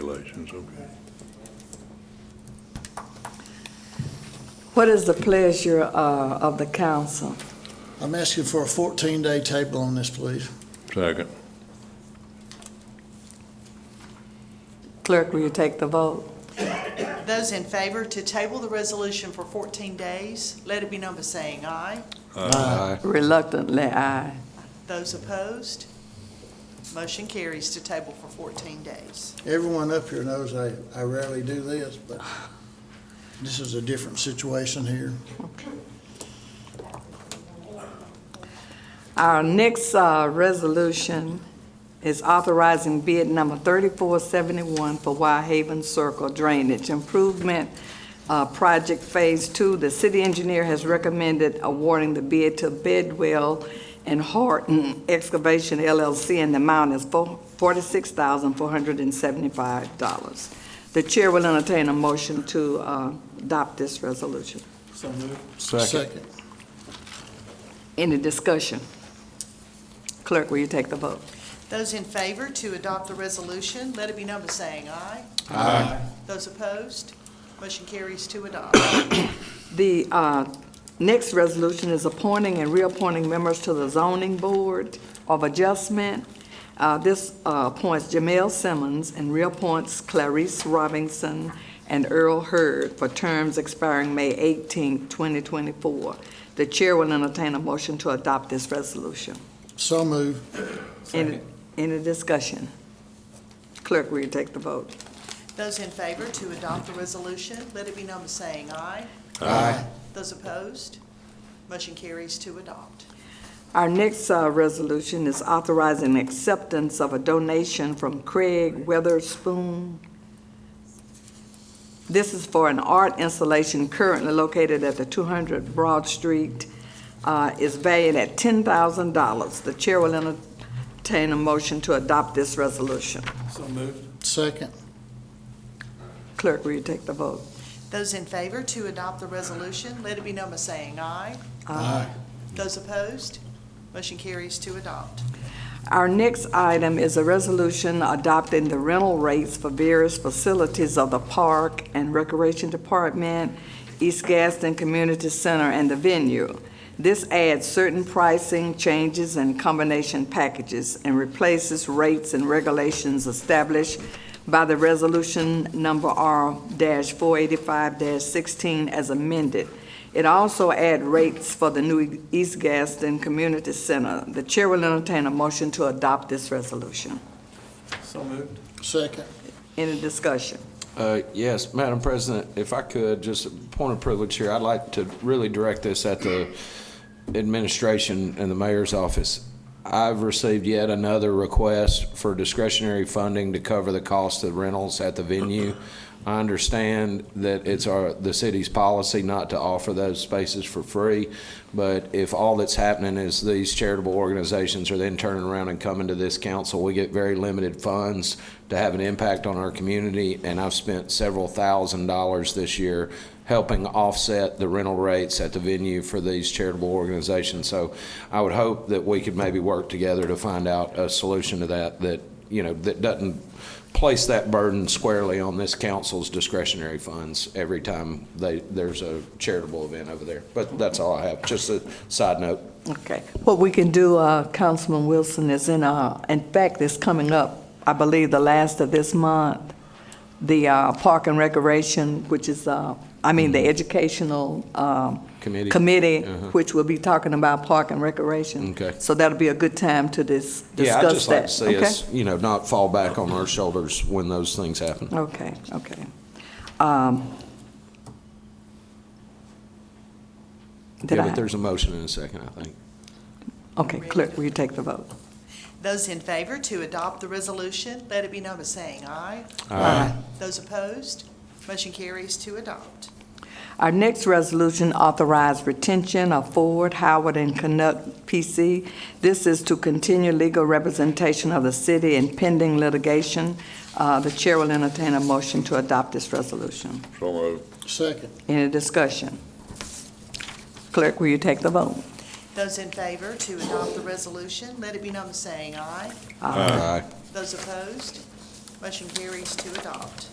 regulations, okay. What is the pleasure uh, of the council? I'm asking for a 14-day table on this, please. Second, Clerk, will you take the vote? Those in favor to table the resolution for 14 days, let it be known by saying aye. Reluctantly, aye. Those opposed, motion carries to table for 14 days. Everyone up here knows I, I rarely do this, but this is a different situation here. Our next uh, resolution is authorizing bid number 3471 for White Haven Circle Drainage Improvement uh, Project Phase Two. The city engineer has recommended awarding the bid to Bedwell and Horton Excavation LLC, and the amount is four- $46,475. The chair will entertain a motion to uh, adopt this resolution. So moved. Second. Any discussion? Clerk, will you take the vote? Those in favor to adopt the resolution, let it be known by saying aye. Aye. Those opposed, motion carries to adopt. The uh, next resolution is appointing and reappointing members to the zoning board of adjustment. Uh, This uh, appoints Jamel Simmons and reappoints Clarice Robinson and Earl Hurd for terms expiring May 18, 2024. The chair will entertain a motion to adopt this resolution. So moved. Any Any discussion? Clerk, will you take the vote? Those in favor to adopt the resolution, let it be known by saying aye. Aye. Those opposed, motion carries to adopt. Our next uh, resolution is authorizing acceptance of a donation from Craig Weatherspoon. This is for an art installation currently located at the 200 Broad Street. uh, is valued at $10,000. The chair will entertain a motion to adopt this resolution. So moved. Second. Clerk, will you take the vote? Those in favor to adopt the resolution, let it be known by saying aye. Aye. Those opposed, motion carries to adopt. Our next item is a resolution adopting the rental rates for various facilities of the Park and Recreation Department, East Gaston Community Center, and the venue. This adds certain pricing changes and combination packages and replaces rates and regulations established by the resolution number R-485-16 as amended. It also add rates for the new East Gaston Community Center. The chair will entertain a motion to adopt this resolution. So moved. Second. Any discussion? Uh, Yes, Madam President, if I could, just a point of privilege here, I'd like to really direct this at the administration and the mayor's office. I've received yet another request for discretionary funding to cover the cost of rentals at the venue. I understand that it's our, the city's policy not to offer those spaces for free, but if all that's happening is these charitable organizations are then turning around and coming to this council, we get very limited funds to have an impact on our community, and I've spent several thousand dollars this year helping offset the rental rates at the venue for these charitable organizations. So I would hope that we could maybe work together to find out a solution to that, that, you know, that doesn't place that burden squarely on this council's discretionary funds every time they, there's a charitable event over there. But that's all I have, just a side note. Okay. What we can do, uh, Councilman Wilson, is in, uh, in fact, it's coming up, I believe, the last of this month, the uh, Park and Recreation, which is, uh, I mean, the Educational um, Mm-hmm. Committee? Committee, Uh-huh. which will be talking about Park and Recreation. Okay. So that'll be a good time to dis- Yeah, I'd discuss just like that. to see Okay? us, you know, not fall back on our shoulders when those things happen. Okay, okay. Um, Did Yeah, but I? there's a motion in a second, I think. Okay, clerk, will you take the vote? Those in favor to adopt the resolution, let it be known by saying aye. Aye. Those opposed, motion carries to adopt. Our next resolution authorized retention of Ford, Howard, and Canuck PC. This is to continue legal representation of the city in pending litigation. Uh, The chair will entertain a motion to adopt this resolution. so moved. Second. Any discussion? Clerk, will you take the vote? Those in favor to Uh, adopt the resolution, let it be known by saying aye. Aye. Those opposed, Motion carries to adopt.